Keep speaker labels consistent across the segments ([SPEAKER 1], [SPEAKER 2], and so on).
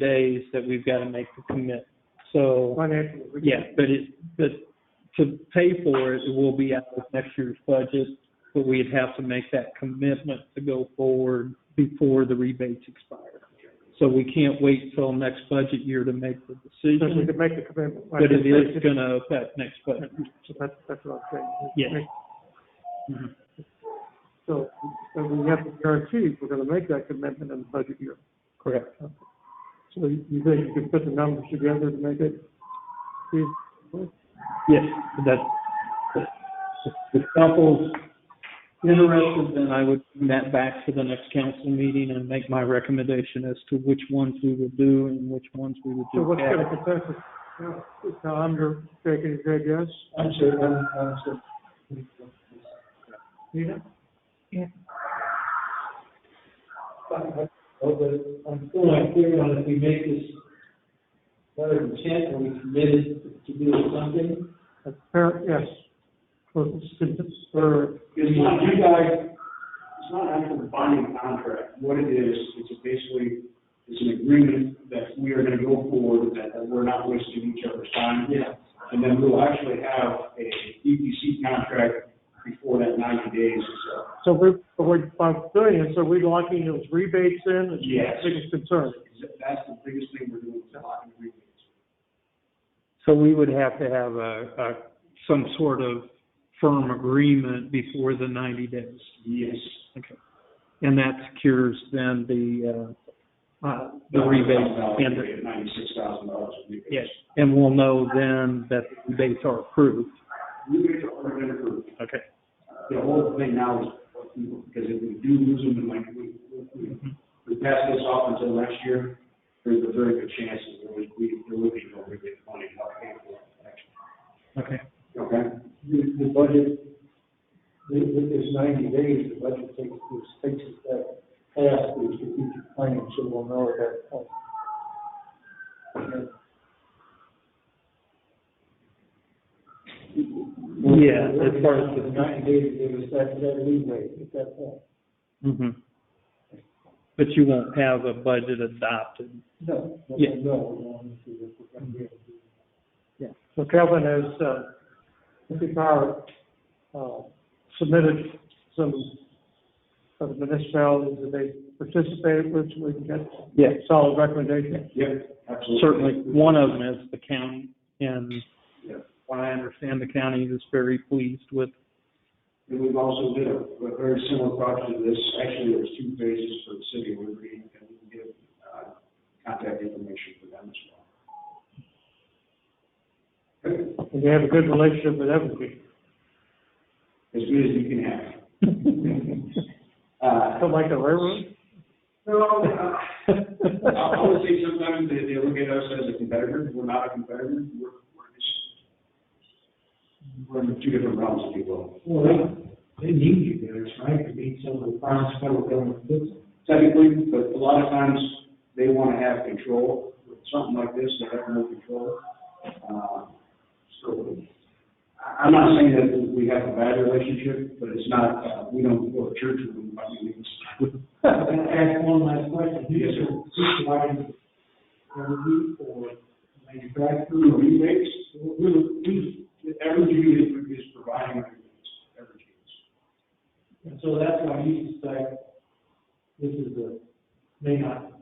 [SPEAKER 1] days that we've got to make the commit. So,
[SPEAKER 2] Well, that's what we-
[SPEAKER 1] yeah, but it, but to pay for it, it will be out of next year's budget, but we'd have to make that commitment to go forward before the rebates expire. So we can't wait till next budget year to make the
[SPEAKER 2] So we
[SPEAKER 1] decision,
[SPEAKER 2] can make the commitment.
[SPEAKER 1] but it is going to affect next budget.
[SPEAKER 2] So That's, that's what I'm saying.
[SPEAKER 1] Yeah.
[SPEAKER 2] So, so we have to guarantee we're gonna make that commitment in the budget year.
[SPEAKER 1] Correct.
[SPEAKER 2] So you you think you can put the numbers together to make it? Steve?
[SPEAKER 1] Yes, that's, if the couple's interested, then I would bring that back to the next council meeting and make my recommendation as to which ones we would do and which ones we would
[SPEAKER 2] So
[SPEAKER 1] do.
[SPEAKER 2] what's
[SPEAKER 1] after.
[SPEAKER 2] gonna consensus? Now, now I'm your, taking Greg, yes?
[SPEAKER 3] I'm sure, I'm, I'm sure.
[SPEAKER 2] Yeah.
[SPEAKER 3] Oh, but I'm still not clear on if we make this letter of intent, are we committed to doing something?
[SPEAKER 2] That's fair, yes. For, for,
[SPEAKER 4] It's not, you guys, it's not actually a binding contract. What it is, it's a basically, it's an agreement that we are gonna go forward, that, that we're not wasting each other's time.
[SPEAKER 3] Yeah.
[SPEAKER 4] And then we'll actually have a EPC contract before that ninety days, so.
[SPEAKER 2] so we're, we're, by doing it, so we're locking those rebates in, is
[SPEAKER 4] Yes.
[SPEAKER 2] the biggest concern.
[SPEAKER 4] That's the biggest thing we're doing, is locking agreements.
[SPEAKER 1] So we would have to have a, a, some sort of firm agreement before the ninety days.
[SPEAKER 4] Yes.
[SPEAKER 1] Okay. And that secures then the, uh, uh, the rebate and, the-
[SPEAKER 4] Ninety-six thousand dollars in rebates.
[SPEAKER 1] yes, and we'll know then that the rebates are approved.
[SPEAKER 4] Rebates are already approved.
[SPEAKER 1] Okay.
[SPEAKER 4] the whole thing now is, because if we do lose them, and like, we, we, we pass this off until next year, there's a very good chance that there would be, there would be no rebate money, not paid for, actually.
[SPEAKER 1] Okay.
[SPEAKER 4] Okay?
[SPEAKER 3] The, the budget, with, with this ninety days, the budget takes, is, takes us that past the strategic planning, so we'll know at that point.
[SPEAKER 1] Yeah, as far as
[SPEAKER 3] The ninety days, to give us that, that leeway at that point.
[SPEAKER 1] hmm But you won't have a budget adopted.
[SPEAKER 3] No, no,
[SPEAKER 1] Yeah.
[SPEAKER 3] no, obviously, if we're gonna be able to do that.
[SPEAKER 2] So Kevin has, uh, Mr. Power, uh, submitted some of the municipalities that they participated with, so we can get
[SPEAKER 1] Yes.
[SPEAKER 2] solid recommendations.
[SPEAKER 4] Yep, absolutely.
[SPEAKER 1] Certainly, one of them is the county, and
[SPEAKER 4] Yeah.
[SPEAKER 1] what I understand, the county is very pleased with.
[SPEAKER 4] And we've also did a, a very similar project to this, actually, there was two phases for the city of Liberty, and we can give, uh, contact information for them as well. Okay?
[SPEAKER 2] And they have a good relationship with everybody.
[SPEAKER 4] As good as you can have. Uh,
[SPEAKER 2] Something like the railroad?
[SPEAKER 4] No, uh, I would say sometimes they, they look at us as a competitor, we're not a competitor, we're, we're just, we're in two different realms, if you will.
[SPEAKER 3] Well, they, they need you guys, right, to meet some of the finest federal government business.
[SPEAKER 4] Technically, but a lot of times, they wanna have control, with something like this, they have no control. Uh, So, I, I'm not saying that we have a bad relationship, but it's not, uh, we don't go to church with them, by any means.
[SPEAKER 3] I'm gonna ask one last question.
[SPEAKER 4] Yes, sir.
[SPEAKER 3] Who's providing the remedy for manufacturing?
[SPEAKER 4] Through rebates, we're- we, every unit is providing rebates, every unit.
[SPEAKER 3] And so that's why you suspect this is a, may not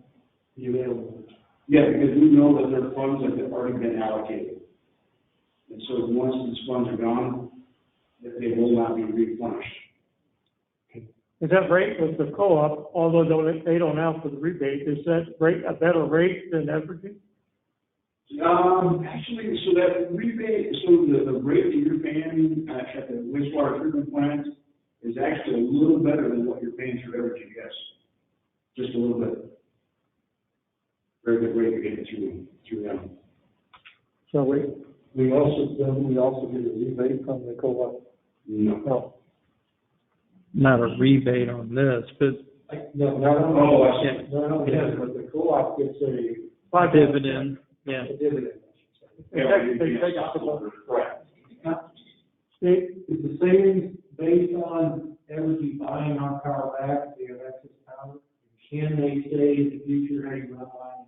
[SPEAKER 3] be available.
[SPEAKER 4] Yeah, because we know that there are funds that have already been allocated. And so once these funds are gone, that they will not be replenished.
[SPEAKER 2] Is that rate with the co-op, although don't- they don't have for the rebate, is that rate a better rate than Evergreen?
[SPEAKER 4] Um, actually, so that rebate, so the, the rate that you're paying uh, at the wastewater treatment plant is actually a little better than what you're paying through Evergy, yes. Just a little bit. Very good rate you're getting through, through them.
[SPEAKER 2] So we,
[SPEAKER 3] We also, then we also get a rebate from the co-op.
[SPEAKER 4] No.
[SPEAKER 3] No,
[SPEAKER 1] Not a rebate on this, but
[SPEAKER 3] I- no, not
[SPEAKER 4] Oh,
[SPEAKER 3] only,
[SPEAKER 4] I see.
[SPEAKER 3] not only that, but the co-op gets a
[SPEAKER 2] five
[SPEAKER 1] dividend, yeah.
[SPEAKER 3] a dividend.
[SPEAKER 2] They take- they take out the-
[SPEAKER 4] Right.
[SPEAKER 2] They-
[SPEAKER 3] Is the savings based on everybody buying our power back, the excess power? Can they say in the future, hey, we're not buying